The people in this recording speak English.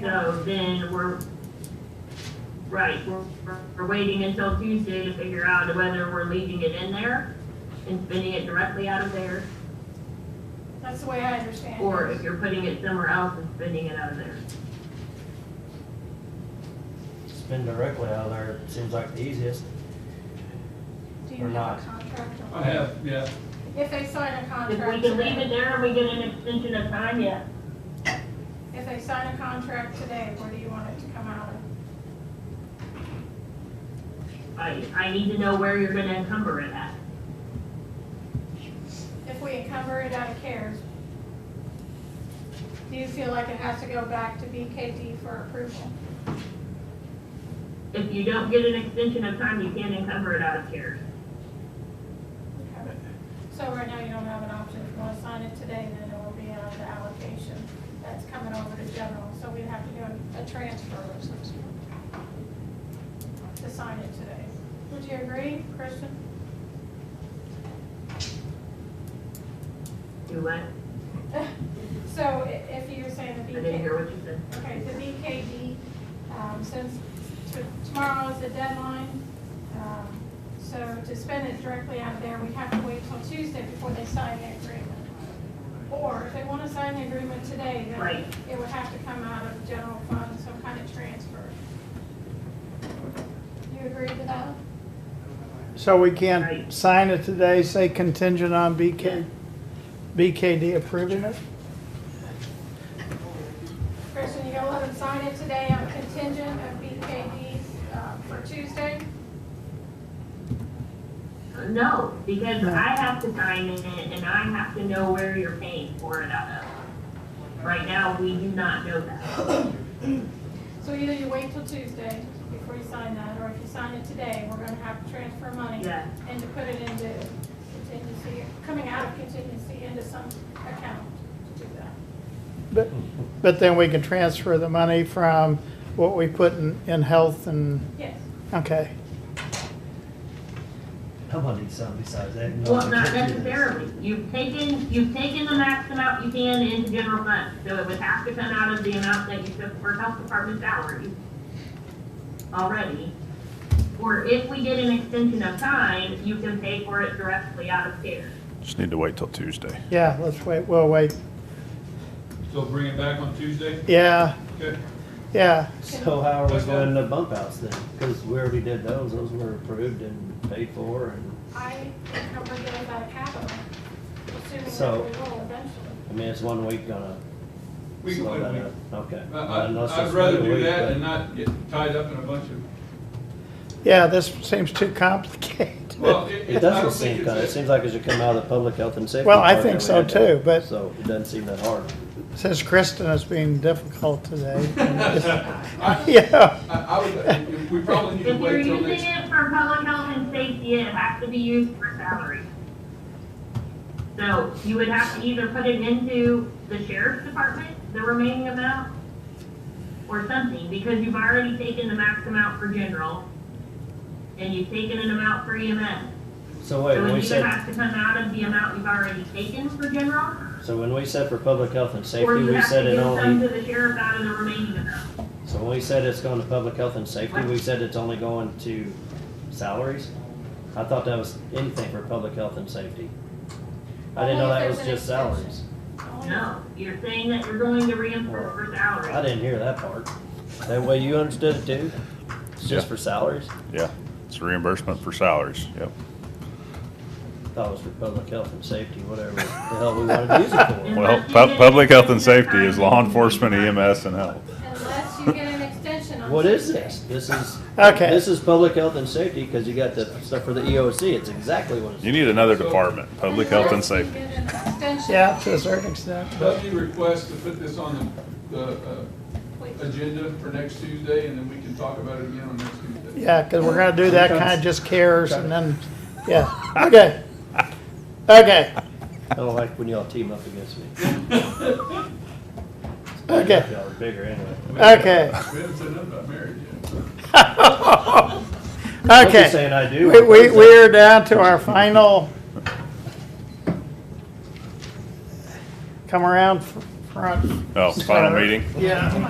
So then we're, right, we're, we're- we're waiting until Tuesday to figure out whether we're leaving it in there and spinning it directly out of there, That's the way I understand it. or if you're putting it somewhere else and spinning it out of there. Spin directly out of there, seems like the easiest. Do you or have not. a contract? or- I have, yeah. If they sign a If we contract can leave it today, there and we get an extension of time, yeah, if they sign a contract today, where do you want it to come out of? I, I need to know where you're gonna encumber it at. If we encumber it out of CARES, do you feel like it has to go back to BKD for approval? If you don't get an extension of time, you can't encumber it out of CARES. Okay. So right now, you don't have an option. If you want to sign it today, then it will be out of the allocation that's coming over to general. So we'd have to do a- a transfer of some sort to sign it today. Would you agree, Kristen? Do what? So i- if you're saying I the didn't BKD, hear what you said. okay, the BKD, um, since t- tomorrow is the deadline, um, so to spend it directly out of there, we have to wait till Tuesday before they sign the agreement. Or if they want to sign the agreement today, Right. then it would have to come out of general fund, some kind of transfer. You agree to that? So we can't Right. sign it today, say contingent on Yeah. BK, BKD approving it? Kristen, you gonna let them sign it today on contingent of BKD, uh, for Tuesday? No, because I have to sign in it and I have to know where you're paying for it out of. Right now, we do not know that. So either you wait till Tuesday before you sign that, or if you sign it today, we're gonna have to transfer money Yeah. and to put it into contingency, coming out of contingency into some account to do that. But, but then we can transfer the money from what we put in, in health and, Yes. okay. I'm gonna need something besides that. No, Well, not I can't do this. necessarily. You've taken, you've taken the max amount you can into general fund, so it would have to come out of the amount that you took for health department salary already. Or if we get an extension of time, you can pay for it directly out of care. Just need to wait till Tuesday. Yeah, let's wait, we'll wait. So bring it back on Tuesday? Yeah, Okay. yeah, So how are we doing the bump outs then? Cause we already did those, those were approved and paid for and, I think I'm gonna get it out of capital, assuming So- that we will eventually. I mean, it's one week gonna We can slow wait a that week. up. Okay. I- I- Unless I'd it's rather another do week, that but- than not get tied up in a bunch of, yeah, this seems too complicated. well, it, It it- I doesn't don't seem, think kind of- it it's. seems like it should come out of the public health and safety. Well, I part think that we so had too, done. but- So it doesn't seem that hard. Since Kristen is being difficult today. I, Yeah, I- I would, we probably need to If you're wait till using next, it for public health and safety, it has to be used for salary. So you would have to either put it into the sheriff's department, the remaining amount, or something, because you've already taken the max amount for general, and you've taken an amount for EMS. So wait, So when it we either said, has to come out of the amount you've already taken for general, so when we said for public health and or safety, you we have to said it give some only, to the sheriff out of the remaining amount. so when we said it's going to public health and safety, we said it's only going to salaries? I thought that was anything for public health and safety. I didn't know Only if that was there's an just salaries. exception. Only- No, you're saying that you're going to reimburse for salary. I didn't hear that part. That way you understood it too? It's Yeah. just for salaries? Yeah, it's reimbursement for salaries, yep. Thought it was for public health and safety, whatever the hell we wanted to use it for. Well, pu- public health and safety is law enforcement, EMS, and health. Unless you get an extension on Tuesday. What is this? This is Okay. This is public health and safety because you got the stuff for the EOC. It's exactly what it's. You need another department, public health and Unless you safety. get an extension. yeah, to a certain extent, but, Lefty request to put this on the, the, uh, Please. agenda for next Tuesday, and then we can talk about it again on next Tuesday. yeah, because we're gonna do that kind of just cares and then, yeah, okay. Okay, I don't like when y'all team up against me. okay, Y'all are bigger anyway. okay. We haven't said nothing about marriage yet. I'm just Okay, saying I do. we, we, we're down to our final. Come around fr- front. Oh, final meeting? Yeah.